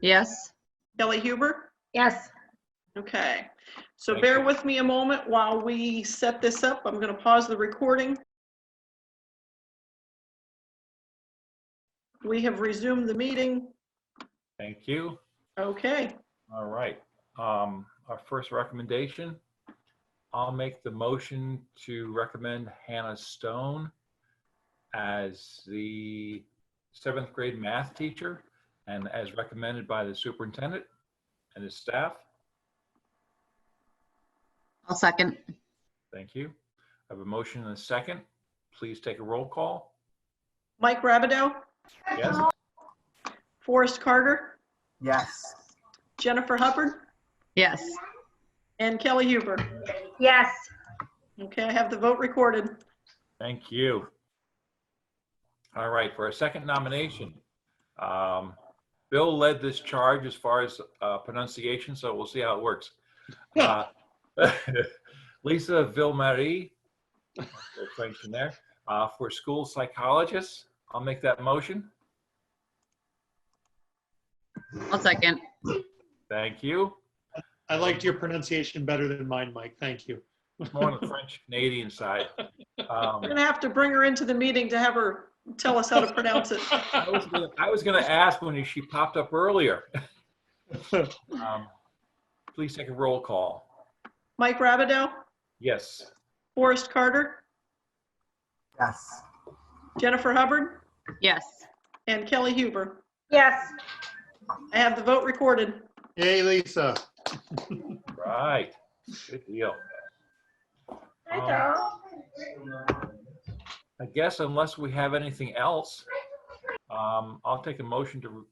Yes. Kelly Huber? Yes. Okay, so bear with me a moment while we set this up. I'm going to pause the recording. We have resumed the meeting. Thank you. Okay, All right. Um, Our first recommendation, I'll make the motion to recommend Hannah Stone as the seventh grade math teacher and as recommended by the superintendent and his staff. I'll second. Thank you. I have a motion and a second. Please take a roll call. Mike Rabideau, Yes? Forrest Carter, Yes. Jennifer Hubbard, Yes. and Kelly Huber. Yes, Okay, I have the vote recorded. Thank you. All right, for our second nomination, um, Bill led this charge as far as uh, pronunciation, so we'll see how it works. Uh, Lisa Ville-Marie, a little French in there, uh, for school psychologist. I'll make that motion. I'll second. Thank you. I liked your pronunciation better than mine, Mike. Thank you. More on the French Canadian side. Um, We're going to have to bring her into the meeting to have her tell us how to pronounce it. I was gonna, I was gonna ask when she popped up earlier. Um, Please take a roll call. Mike Rabideau, Yes. Forrest Carter, Yes. Jennifer Hubbard, Yes. and Kelly Huber. yes, I have the vote recorded. Hey, Lisa. Right. Good deal. Um, I guess unless we have anything else, um, I'll take a motion to,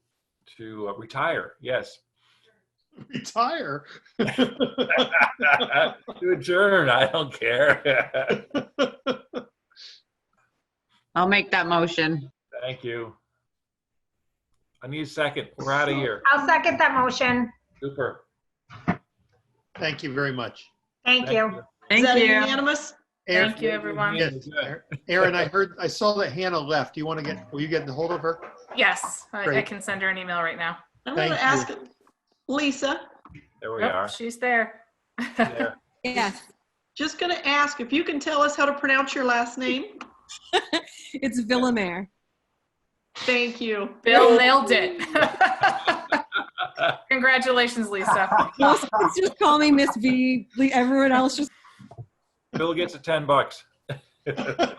to uh, retire. Yes. Retire. To adjourn, I don't care. I'll make that motion. Thank you. I need a second. We're out of here. I'll second that motion. Super. Thank you very much. Thank you. Is Thank that you. unanimous? Aaron- Thank you, everyone. Yes, Aaron, I heard, I saw that Hannah left. Do you want to get, will you get hold of her? Yes, I, I Great. can send her an email right now. I'm going to Thank ask Lisa, There we Nope, are. She's there. There. Yes, just going to ask if you can tell us how to pronounce your last name? it's Villamere. Thank you. Bill nailed it. Congratulations, Lisa. Most kids just call me Miss V. Like, Everyone else just Bill gets a 10 bucks.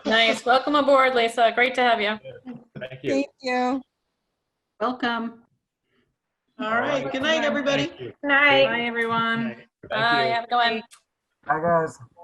Nice. Welcome aboard, Lisa. Great to have you. Thank you. thank you. Welcome. All right. Good night, everybody. Thank you. Night. Um, Bye, everyone. Night. Thank you. Bye. Have a good one. Hi, guys.